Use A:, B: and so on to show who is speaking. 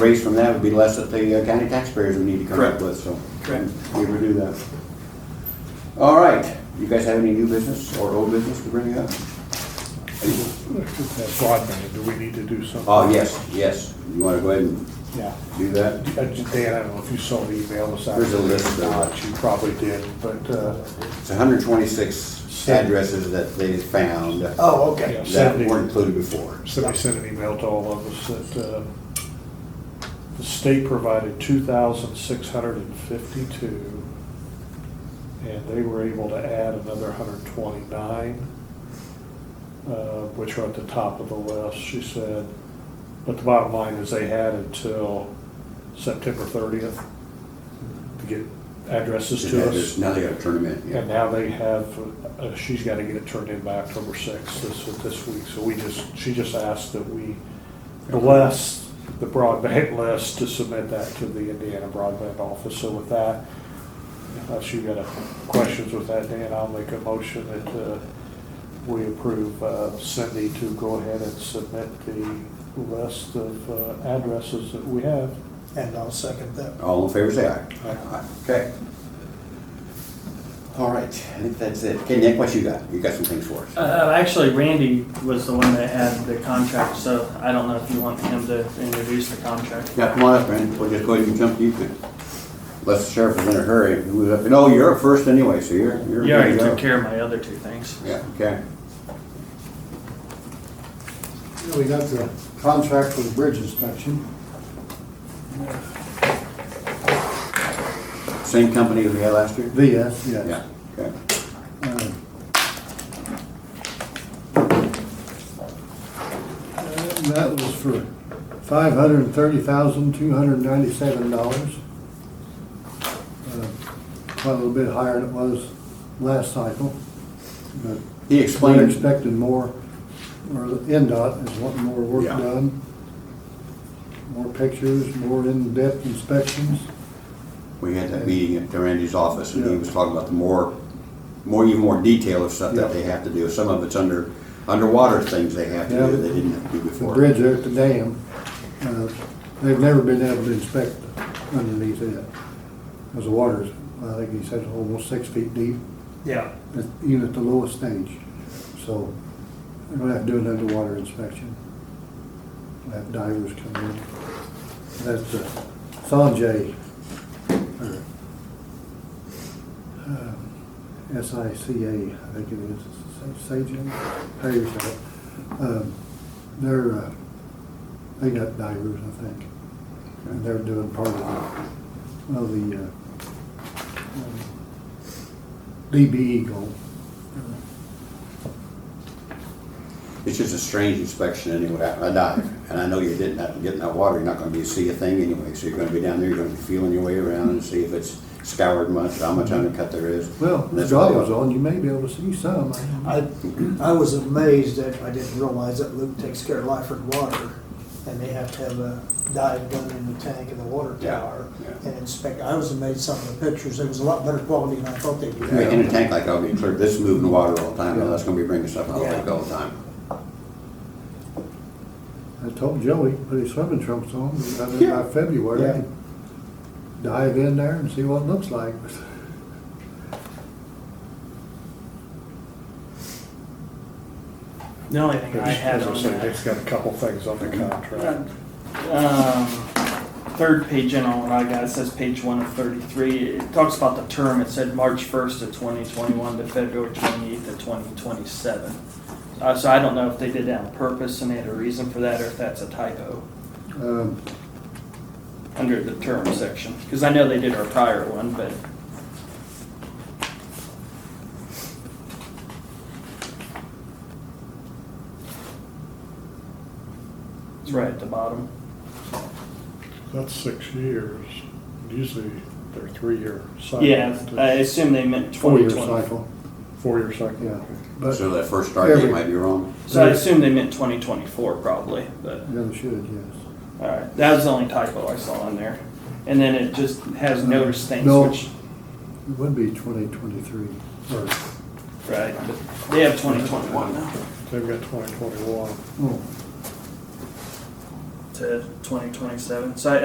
A: raised from that would be less that the uh, county taxpayers would need to come up
B: Correct.
A: with, so.
B: Correct.
A: We would do that. All right, you guys have any new business or old business to bring up?
C: That broadband, do we need to do something?
A: Oh, yes, yes, you wanna go ahead and
C: Yeah.
A: do that?
C: Uh, Dan, I don't know if you saw the email this
A: There's a
C: afternoon
A: list
C: or
A: of-
C: not. You probably did, but, uh,
A: It's hundred twenty-six addresses that they found uh,
B: Oh, okay.
A: that
C: Seventy.
A: weren't included before.
C: somebody sent an email to all of us that uh, the state provided 2,652, and they were able to add another 129, uh, which are at the top of the list, she said. But the bottom line is they had until September 30th to get addresses to us.
A: Now they gotta turn them in,
C: And
A: yeah.
C: now they have, uh, she's got to get it turned in by October 6th, this, this week. So we just, she just asked that we bless the broadband list to submit that to the Indiana Broadband Office. So with that, unless you got a- questions with that, Dan, I'll make a motion that uh, we approve uh, Cindy to go ahead and submit the list of uh, addresses that we have.
B: And I'll second that.
A: All in favor, say aye.
C: Aye.
A: Okay. All right, I think that's it. Okay, Nick, what you got? You got some things for us?
D: Uh, actually, Randy was the one that had the contract, so I don't know if you want him to introduce the contract.
A: Yeah, come on up, man. We'll just go ahead and jump to you. then. Unless the sheriff is in a hurry. Who's up? No, you're up first anyway, so you're, you're.
D: You already
A: good to go.
D: took care of my other two things.
A: Yeah, okay.
E: We got the contract for the bridge inspection.
A: Same company as we had last year?
E: VS,
A: Yeah, okay.
E: Uh, That was for five hundred and thirty thousand, two hundred and ninety-seven dollars. Uh, Quite a little bit higher than it was last cycle, but
A: He
E: we're
A: explained,
E: expecting more, or NDOT is wanting more work
A: Yeah.
E: done. More pictures, more in-depth inspections.
A: we had that meeting at Randy's office and he was talking about the more, more, even more detail of stuff that they have to do. Some of it's under, underwater things they have to
E: Yeah.
A: do that they didn't have to do
E: the
A: before.
E: bridge there at the dam, uh, they've never been able to inspect underneath it. Because the water's, I think he said, almost six feet deep,
D: Yeah.
E: at- even at the lowest stage. So they're gonna have to do an underwater inspection. We'll Have divers come in. That's the Sanjay, or, um, SICA, I think it is, Sajay, how you say it. Um, They're, uh, they got divers, I think, and they're doing part of the, of the, uh, um, DBE goal.
A: It's just a strange inspection anyway, I I dive, and I know you didn't, have- get in that water, you're not gonna be, see a thing anyway, so you're gonna be down there, you're gonna be feeling your way around and see if it's scoured much, how much undercut there is.
E: Well, the
A: That's what they
E: goggles
A: are.
E: on, you may be able to see some.
B: I, I was amazed that I didn't realize that Luke takes care of Lyford Water, and they have to have a dive done in the tank and the water
A: Yeah,
B: tower
A: yeah.
B: and inspect. I was amazed some of the pictures, it was a lot better quality than I thought they
A: I mean, In
B: were.
A: a tank like I'll be clear, this is moving water all the time, and that's gonna be bringing stuff out like all the time.
E: I told Joey, put his swimming trunks on, and by the- by
B: Yeah.
E: February, dive in there and see what it looks like.
D: The only thing I had
C: As
D: on
C: I said,
D: that,
C: Nick's got a couple things on the contract.
D: um, third page in on what I got, it says page one of thirty-three. It talks about the term. It said March first of twenty twenty-one to February twenty-eighth of twenty twenty-seven. Uh, so I don't know if they did that on purpose and they had a reason for that, or if that's a typo.
E: Um,
D: under the term section, because I know they did our prior one, but it's right at the bottom.
C: That's six years. Usually they're three-year cycles.
D: Yeah, I assume they meant
E: Four-year
D: 2020.
E: cycle,
C: Four-year cycle.
E: yeah.
C: okay.
E: But,
A: So that first start date
E: Every-
A: might be wrong.
D: So I assume they meant 2024 probably, but,
E: yeah, they should, yes.
D: all right. That was the only typo I saw in there. And then it just has notice things,
E: No.
D: which,
E: It would be twenty twenty-three, or,
D: right, but they have 2021 now.
C: They've got twenty twenty-one.
E: oh,
D: to twenty twenty-seven. So I,